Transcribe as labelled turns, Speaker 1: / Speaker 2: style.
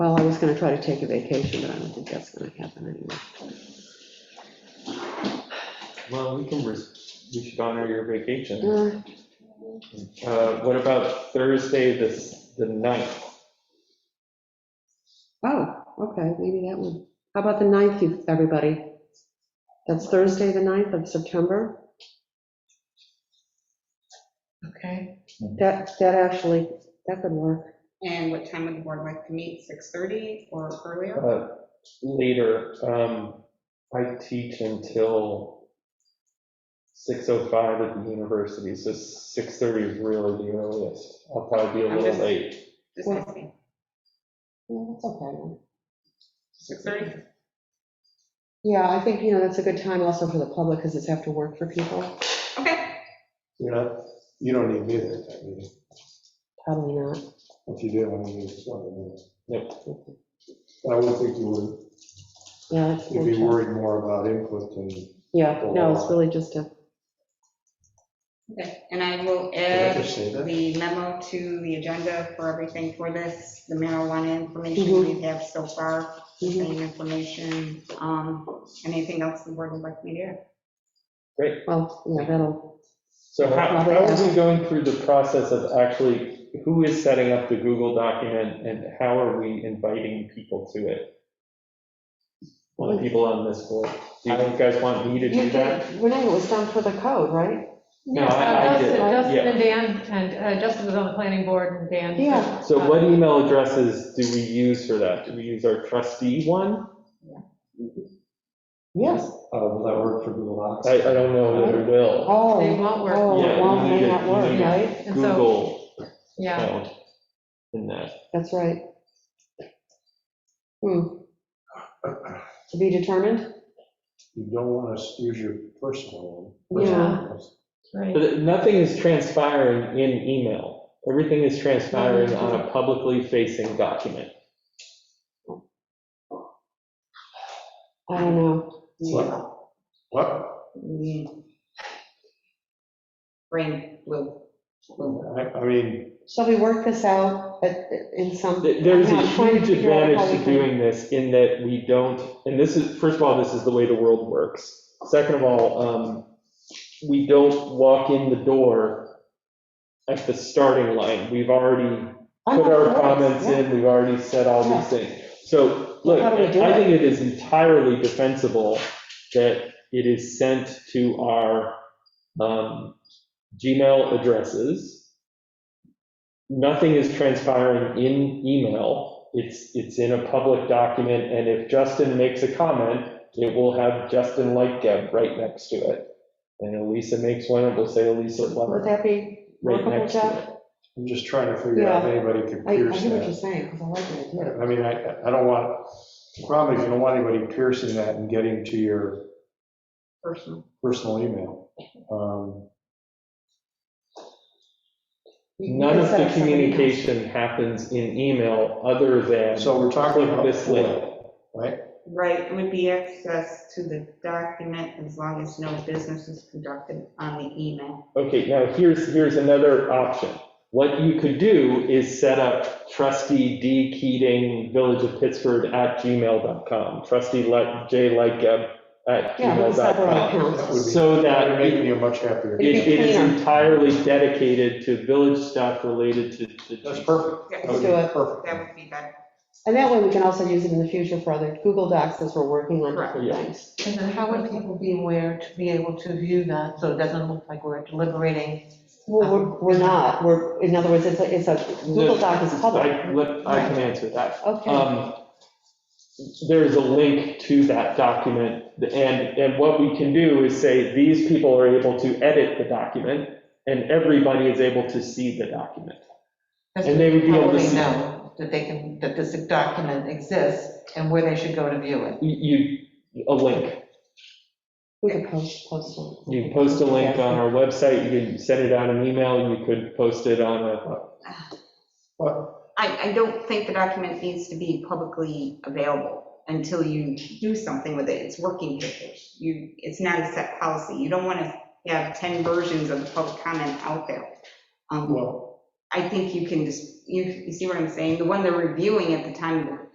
Speaker 1: Well, I was gonna try to take a vacation, but I don't think that's gonna happen anyway.
Speaker 2: Well, we can, res- we should honor your vacation.
Speaker 1: Uh,
Speaker 2: Uh, What about Thursday, this, the ninth?
Speaker 1: Oh, okay, maybe that one. How about the 9th, you- everybody? That's Thursday, the 9th of September? Okay, that, that actually, that could work.
Speaker 3: And what time would the board like to meet, 6:30 or earlier?
Speaker 2: Uh, Later, um, I teach until 6:05 at the university, so 6:30 is really the earliest. I'll probably be a
Speaker 3: I'm
Speaker 2: little
Speaker 3: just-
Speaker 2: late.
Speaker 3: Just asking.
Speaker 1: Yeah, that's okay.
Speaker 3: 6:30?
Speaker 1: Yeah, I think, you know, that's a good time also for the public, because it's after work for people.
Speaker 3: Okay,
Speaker 4: You're not, you don't need me there at that meeting.
Speaker 1: Probably not.
Speaker 4: If you do, I mean, it's not a minute.
Speaker 2: Yep.
Speaker 4: I would think you would,
Speaker 1: Yeah, it's-
Speaker 4: you'd be worried more about input than,
Speaker 1: Yeah, no, it's really just a,
Speaker 3: okay. And I will
Speaker 1: Uh,
Speaker 4: did I
Speaker 3: add
Speaker 4: just say that?
Speaker 3: the memo to the agenda for everything for this, the marijuana information we have so far,
Speaker 1: mhm.
Speaker 3: same information. Um, Anything else the board would like me to add?
Speaker 2: Great.
Speaker 1: well, yeah, that'll,
Speaker 2: So how,
Speaker 1: Probably
Speaker 2: how are
Speaker 1: ask-
Speaker 2: we going through the process of actually, who is setting up the Google document and how are we inviting people to it? Well, the people on this board, do you guys want me to do
Speaker 1: you
Speaker 2: that?
Speaker 1: did, Renee, it was done for the code, right?
Speaker 2: No,
Speaker 5: Yeah,
Speaker 2: I- I
Speaker 5: uh,
Speaker 2: did it,
Speaker 5: Justin Justin
Speaker 2: yeah.
Speaker 5: and Dan, and uh, Justin was on the planning board and Dan.
Speaker 1: Yeah.
Speaker 2: So what email addresses do we use for that? Do we use our trustee one?
Speaker 1: Yes.
Speaker 4: uh, will that work for Google Docs?
Speaker 2: I, I don't know that it will.
Speaker 1: Oh.
Speaker 5: They won't work.
Speaker 1: Oh,
Speaker 2: Yeah,
Speaker 1: it
Speaker 2: you
Speaker 1: won't
Speaker 2: need
Speaker 1: hang
Speaker 2: a-
Speaker 1: at
Speaker 2: you
Speaker 1: work,
Speaker 2: need a
Speaker 1: right?
Speaker 5: And so,
Speaker 2: Google
Speaker 5: yeah,
Speaker 2: account in that.
Speaker 1: That's right. Hmm. To be determined?
Speaker 4: You don't want to use your personal one.
Speaker 1: Yeah.
Speaker 4: Personal
Speaker 5: right.
Speaker 2: But nothing is transpiring in email. Everything is transpiring on a publicly facing document.
Speaker 1: I don't know.
Speaker 4: one. What?
Speaker 3: Mm. Brain, blue, blue.
Speaker 4: What? I, I mean,
Speaker 1: Shall we work this out at- in some?
Speaker 2: Th- There's a
Speaker 1: I'm trying to
Speaker 2: huge
Speaker 1: figure out
Speaker 2: advantage
Speaker 1: how
Speaker 2: to
Speaker 1: we can-
Speaker 2: doing this in that we don't, and this is, first of all, this is the way the world works. Second of all, um, we don't walk in the door at the starting line. We've already
Speaker 1: I'm
Speaker 2: put
Speaker 1: not
Speaker 2: our
Speaker 1: sure.
Speaker 2: comments
Speaker 1: Yeah.
Speaker 2: in, we've already said all
Speaker 1: Yeah.
Speaker 2: these things. So, look,
Speaker 1: How do we do
Speaker 2: I
Speaker 1: it?
Speaker 2: think it is entirely defensible that it is sent to our um, Gmail addresses. Nothing is transpiring in email. It's, it's in a public document, and if Justin makes a comment, it will have Justin Lightgeb right next to it. And Elisa makes one, it will say Elisa
Speaker 1: Would
Speaker 2: Lemmer
Speaker 1: that be
Speaker 2: right
Speaker 1: workable,
Speaker 2: next to
Speaker 1: Jeff?
Speaker 2: it.
Speaker 4: I'm just trying to figure out if anybody could
Speaker 1: I, I hear
Speaker 4: pierce
Speaker 1: what you're
Speaker 4: that.
Speaker 1: saying, because I like the idea.
Speaker 4: I mean, I, I don't want, the problem is you don't want anybody piercing that and getting to your
Speaker 3: personal.
Speaker 4: personal email. Um,
Speaker 1: You- you
Speaker 2: None
Speaker 1: can
Speaker 2: of
Speaker 1: set
Speaker 2: the
Speaker 1: up something else.
Speaker 2: communication happens in email other than
Speaker 4: So we're talking
Speaker 2: click
Speaker 4: about.
Speaker 2: this link.
Speaker 3: Right, it would be access to the document as long as no business is conducted on the email.
Speaker 2: Okay, now here's, here's another option. What you could do is set up trustee D Keating, Village of Pittsford at gmail.com, trustee Le- J Lightgeb at
Speaker 1: Yeah, those separate
Speaker 2: gmail.com.
Speaker 1: accounts.
Speaker 4: That would be-
Speaker 2: So
Speaker 4: That would
Speaker 2: that
Speaker 4: make me
Speaker 2: it
Speaker 4: a much
Speaker 1: It'd
Speaker 4: happier.
Speaker 1: be
Speaker 2: it is
Speaker 1: cleaner.
Speaker 2: entirely dedicated to village stuff related to. to-
Speaker 4: That's perfect.
Speaker 3: Yeah,
Speaker 1: Let's
Speaker 4: That would
Speaker 1: do
Speaker 4: be
Speaker 1: it.
Speaker 4: Perfect.
Speaker 3: That would be better.
Speaker 1: And that way we can also use it in the future for other Google Docs as we're working on
Speaker 3: Correct.
Speaker 1: different
Speaker 2: Yeah.
Speaker 1: things.
Speaker 6: And then how would people be aware to be able to view that, so it doesn't look like we're deliberating?
Speaker 1: Well, we're, we're not, we're, in other words, it's a, it's a, Google Doc is public.
Speaker 2: I let- I can answer that.
Speaker 1: Okay,
Speaker 2: Um, There's a link to that document, and, and what we can do is say, these people are able to edit the document, and everybody is able to see the document. And they would be
Speaker 6: How
Speaker 2: able
Speaker 6: will
Speaker 2: to
Speaker 6: they
Speaker 2: see,
Speaker 6: know that they can, that this document exists and where they should go to view it?
Speaker 2: you, you- a link.
Speaker 1: we could post, post it.
Speaker 2: You can post a link on our website, you can send it out an email, you could post it on a,
Speaker 4: But
Speaker 3: I, I don't think the document needs to be publicly available until you do something with it. It's working papers. You, it's not a set policy. You don't want to have 10 versions of the public comment out there. Um,
Speaker 4: Well,
Speaker 3: I think you can just, you, you see what I'm saying? The one they're reviewing at the time of the